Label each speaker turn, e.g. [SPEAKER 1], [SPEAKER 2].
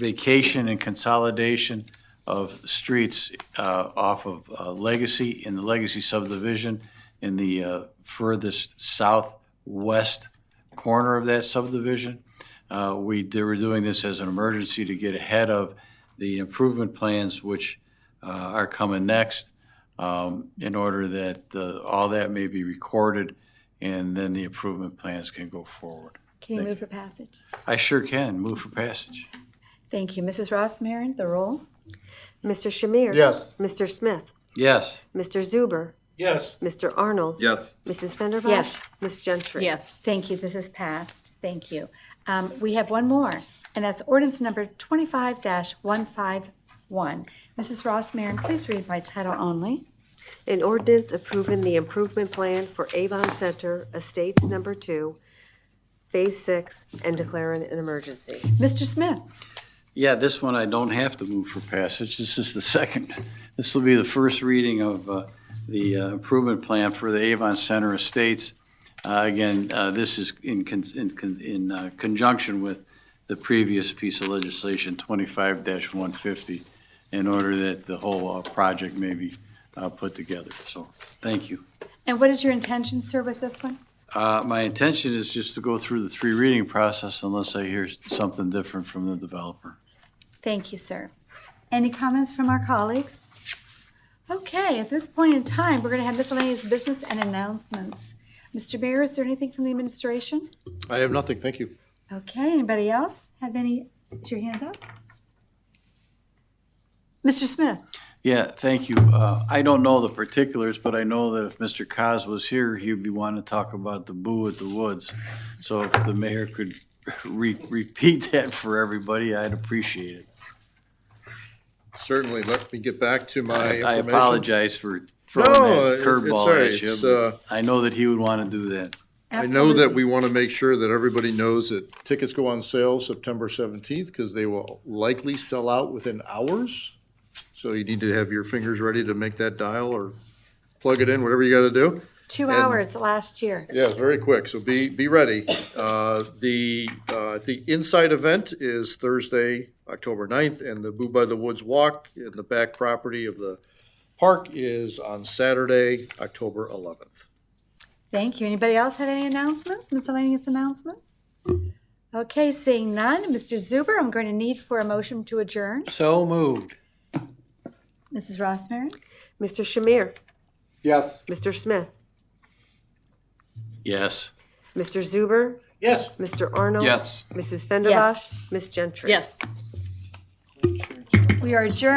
[SPEAKER 1] vacation and consolidation of streets uh, off of uh, Legacy, in the Legacy subdivision, in the uh, furthest southwest corner of that subdivision. Uh, We, they were doing this as an emergency to get ahead of the improvement plans which uh, are coming next, um, in order that uh, all that may be recorded, and then the improvement plans can go forward.
[SPEAKER 2] Can you move for passage?
[SPEAKER 1] I sure can, move for passage.
[SPEAKER 2] Thank you. Mrs. Ross Marin, the roll?
[SPEAKER 3] Mr. Shamir?
[SPEAKER 4] Yes.
[SPEAKER 3] Mr. Smith?
[SPEAKER 1] Yes.
[SPEAKER 3] Mr. Zuber?
[SPEAKER 4] Yes.
[SPEAKER 3] Mr. Arnold?
[SPEAKER 4] Yes.
[SPEAKER 3] Mrs. Fenderbosh?
[SPEAKER 2] Yes.
[SPEAKER 3] Ms. Gentry?
[SPEAKER 5] Yes.
[SPEAKER 2] Thank you, this is passed. Thank you. Um, We have one more, and that's ordinance number 25-151. Mrs. Ross Marin, please read by title only.
[SPEAKER 3] An ordinance approving the improvement plan for Avon Center Estates Number Two, Phase Six, and declaring an emergency.
[SPEAKER 2] Mr. Smith?
[SPEAKER 1] Yeah, this one I don't have to move for passage. This is the second. This will be the first reading of uh, the uh, improvement plan for the Avon Center Estates. Uh, Again, uh, this is in con- in con- in uh, conjunction with the previous piece of legislation, 25-150, in order that the whole uh, project may be uh, put together. So, thank you.
[SPEAKER 2] And what is your intention, sir, with this one?
[SPEAKER 1] Uh, My intention is just to go through the three reading process unless I hear something different from the developer.
[SPEAKER 2] Thank you, sir. Any comments from our colleagues? Okay, at this point in time, we're going to have miscellaneous business and announcements. Mr. Mayor, is there anything from the administration?
[SPEAKER 4] I have nothing, thank you.
[SPEAKER 2] Okay, anybody else have any, is your hand up? Mr. Smith?
[SPEAKER 1] Yeah, thank you. Uh, I don't know the particulars, but I know that if Mr. Cos was here, he'd be wanting to talk about the boo at the woods. So if the mayor could re- repeat that for everybody, I'd appreciate it.
[SPEAKER 4] Certainly, let me get back to my
[SPEAKER 1] I
[SPEAKER 4] information.
[SPEAKER 1] apologize for
[SPEAKER 4] No,
[SPEAKER 1] throwing
[SPEAKER 4] it-
[SPEAKER 1] that
[SPEAKER 4] it's all
[SPEAKER 1] curveball
[SPEAKER 4] right.
[SPEAKER 1] at you.
[SPEAKER 4] It's, uh,
[SPEAKER 1] but I know that he would want to do that.
[SPEAKER 4] I know that
[SPEAKER 2] Absolutely.
[SPEAKER 4] we want to make sure that everybody knows that tickets go on sale September seventeenth, because they will likely sell out within hours. So you need to have your fingers ready to make that dial or plug it in, whatever you got to do.
[SPEAKER 2] Two
[SPEAKER 4] and-
[SPEAKER 2] hours last year.
[SPEAKER 4] Yeah, it's very quick, so be, be ready. Uh, The, uh, the Inside event is Thursday, October 9th, and the Boo by the Woods Walk in the back property of the park is on Saturday, October 11th.
[SPEAKER 2] Thank you. Anybody else have any announcements, miscellaneous announcements? Okay, seeing none. Mr. Zuber, I'm going to need for a motion to adjourn.
[SPEAKER 4] So moved.
[SPEAKER 2] Mrs. Rossmarin?
[SPEAKER 3] Mr. Shamir?
[SPEAKER 4] Yes.
[SPEAKER 3] Mr. Smith?
[SPEAKER 1] Yes.
[SPEAKER 3] Mr. Zuber?
[SPEAKER 4] Yes.
[SPEAKER 3] Mr. Arnold?
[SPEAKER 1] Yes.
[SPEAKER 3] Mrs. Fenderbosh? Ms. Gentry?
[SPEAKER 5] Yes.
[SPEAKER 2] We are adjourned.